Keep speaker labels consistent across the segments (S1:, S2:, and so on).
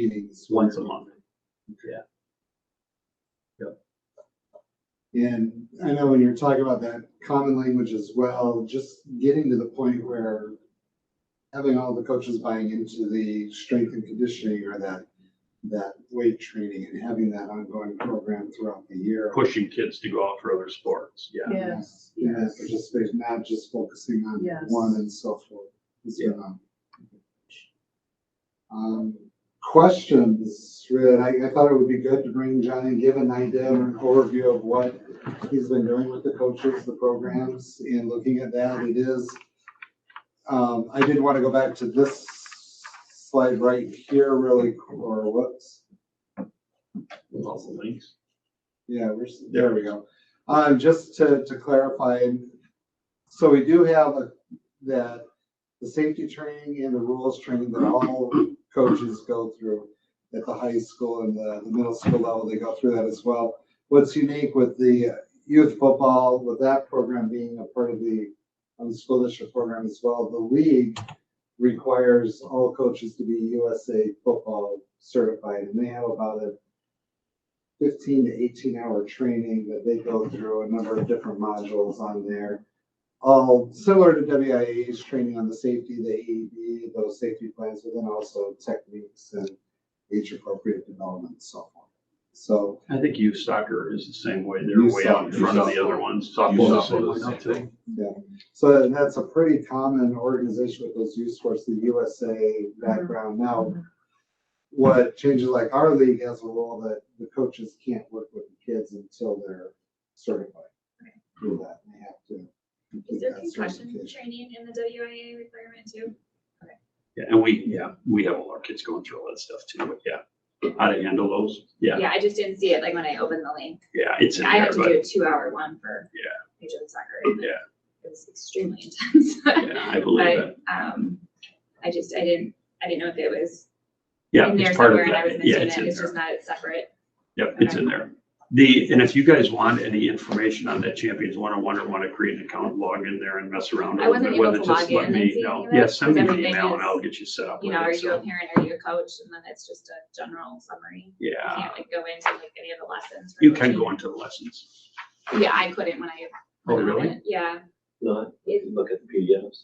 S1: meetings.
S2: once a month.
S1: And I know when you're talking about that common language as well, just getting to the point where having all the coaches buying into the strength and conditioning or that, that weight training and having that ongoing program throughout the year.
S3: pushing kids to go out for other sports, yeah.
S4: Yes,
S1: And that
S4: yes.
S1: participation, not just focusing on
S4: Yes.
S1: one and so forth. It's been, um, Um, questions, really, I, I thought it would be good to bring John and give an idea or an overview of what he's been doing with the coaches, the programs, and looking at that, it is. Um, I did want to go back to this slide right here really, or whoops.
S3: Lots of links.
S1: Yeah, we're, s- there we go. Um, just to, to clarify, and so we do have a- that, the safety training and the rules training that all coaches go through at the high school and the, the middle school level, they go through that as well. What's unique with the youth football, with that program being a part of the, um, school district program as well, the league requires all coaches to be USA football certified, and they have about a fifteen to eighteen hour training that they go through a number of different modules on there. All similar to WIA's training on the safety, the AED, those safety plans, but then also techniques and age appropriate development and so forth. So,
S3: I think youth soccer is the same way. They're
S1: Youth
S3: way out in
S1: soccer,
S3: front of
S1: youth
S3: the other ones.
S2: Youth
S3: Softball's
S2: soccer
S3: the
S2: is
S3: same
S2: the same
S3: way.
S1: so that's a pretty common organization with those youth sports, the USA background now.
S5: Mm-hmm.
S1: What changes, like our league has a rule that the coaches can't work with the kids until they're certified. Do that, they have to. complete
S5: Is there
S1: that
S5: concussion
S1: certification.
S5: training in the WIA requirement too?
S3: Yeah, and we, yeah, we have all our kids going through all that stuff too, but yeah. How to handle those, yeah,
S5: I just didn't see it like when I opened the link.
S3: yeah, it's in
S5: I
S3: there,
S5: have to do
S3: but
S5: a two hour one for
S3: Yeah. Oh,
S5: Major League Soccer. and
S3: Yeah.
S5: It was extremely intense.
S3: yeah, I believe
S5: But,
S3: it.
S5: um, I just, I didn't, I didn't know if it was
S3: Yeah,
S5: in there
S3: it's part of
S5: somewhere and I was
S3: that. Yeah,
S5: missing
S3: it's
S5: it.
S3: in
S5: It's
S3: there.
S5: just not separate.
S3: Yep, it's in there. The, and if you guys want any information on that Champions one-on-one or want to create an account, log in there and mess around a
S5: I
S3: little bit
S5: wasn't
S3: with
S5: able
S3: it,
S5: to
S3: just
S5: log
S3: let
S5: in and
S3: me
S5: see
S3: know.
S5: any of
S3: Yeah,
S5: it,
S3: send me an
S5: 'cause
S3: email
S5: everything
S3: and I'll
S5: is,
S3: get you set up
S5: You
S3: with
S5: know, are
S3: it.
S5: you a
S3: so,
S5: parent? Are you a coach? And then it's just a general summary. You
S3: Yeah,
S5: can't like go into like any of the lessons. for
S3: you can
S5: coaching.
S3: go into the lessons.
S5: Yeah, I couldn't when I.
S3: Oh,
S5: went on
S3: really?
S5: it. Yeah.
S2: Not,
S5: It-
S2: look at the PDFs.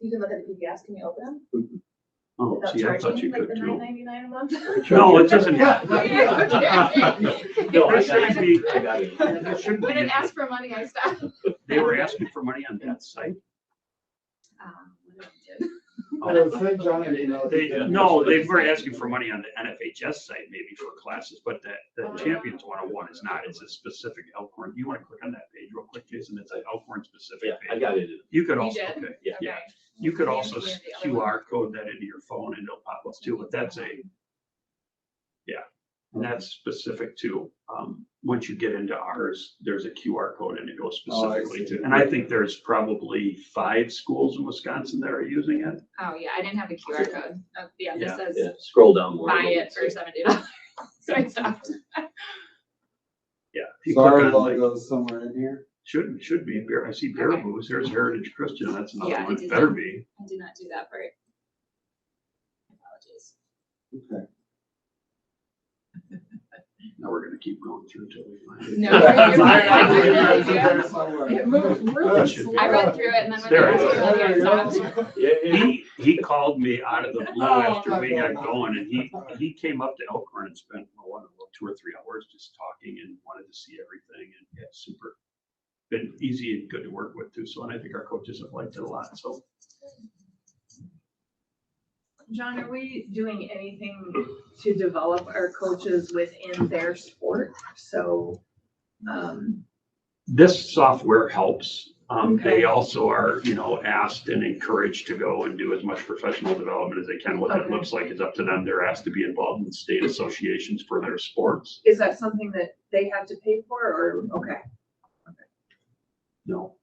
S4: You can look at the PDFs, can you open them
S3: Oh,
S4: without
S3: see, I thought you
S4: charging like
S3: could
S4: the
S3: too.
S4: nine ninety-nine a month?
S3: No, it doesn't.
S2: No, I
S3: That
S2: got
S3: should
S2: it.
S3: be,
S2: I got it.
S3: that should
S5: When it
S3: be,
S5: asked for money, I stopped.
S3: they were asking for money on that site.
S5: Um, what did I do?
S1: Oh, I would say John and Mel-
S3: Oh, They, no, they were asking for money on the NFHS site maybe for classes, but that, that Champions one oh one is not, it's a specific Elkhorn. You wanna click on that page real quick, Jason? It's an Elkhorn
S2: Yeah,
S3: specific
S2: I
S3: page.
S2: got it. in.
S3: You could
S5: You
S3: also,
S5: did?
S3: okay,
S2: Yeah.
S3: yeah.
S5: Okay.
S3: You could
S5: Yeah,
S3: also
S5: yeah, the other
S3: QR code that into your phone and it'll pop up too, but that's a, yeah. And that's specific to, um, once you get into ours, there's a QR code and it goes
S1: Oh, I
S3: specifically
S1: see.
S3: to, and I think there's probably five schools in Wisconsin that are using it.
S5: Oh, yeah, I didn't have the QR code. Oh, yeah,
S3: Yeah,
S5: this
S2: Yeah,
S5: says
S2: scroll down more.
S5: buy it for seventy dollars. So I stopped.
S3: Yeah. if you
S1: So
S3: click
S1: our
S3: on, like,
S1: logo is somewhere in here.
S3: Should, should be, Bear- I see Bear
S5: Okay.
S3: Boo's, there's Heritage Christian, that's another
S5: Yeah, I
S3: one,
S5: did
S3: It better
S5: that.
S3: be.
S5: I did not do that part. Apologies.
S1: Okay.
S3: Now we're gonna keep going through till we find it.
S5: No,
S1: I- I
S5: you're-
S1: believe
S5: you're-
S1: it's in
S5: you're-
S1: there somewhere.
S4: It moved really
S3: should
S4: slow.
S3: be.
S5: I read through it and then when
S3: There
S5: I
S3: it
S5: was
S3: is.
S5: looking, I stopped.
S2: Yeah, yeah.
S3: He, he called me out of the blue
S1: Oh,
S3: after
S1: my
S3: we got
S1: God.
S3: going and he, he came up to Elkhorn and spent, oh, I don't know, two or three hours just talking and wanted to see everything and yeah, super. Been easy and good to work with too, so and I think our coaches have liked it a lot, so.
S4: John, are we doing anything to develop our coaches within their sport? So, um,
S3: This software helps. Um,
S4: Okay.
S3: they also are, you know, asked and encouraged to go and do as much professional development as they can. What that
S4: Okay.
S3: looks like is up to them. They're asked to be involved in state associations for their sports.
S4: is that something that they have to pay for or, okay?
S3: No.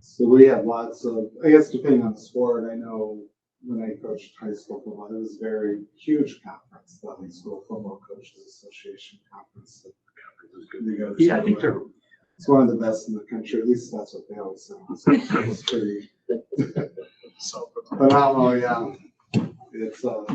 S1: So we have lots of, I guess depending on the sport, I know when I coached high school football, it was a very huge conference, the High School Football Coaches Association Conference. They go to-
S3: Yeah, I think they're,
S1: It's one of the best in the country, at least that's what they always say. So It's pretty
S2: So-
S1: phenomenal, yeah. It's, uh,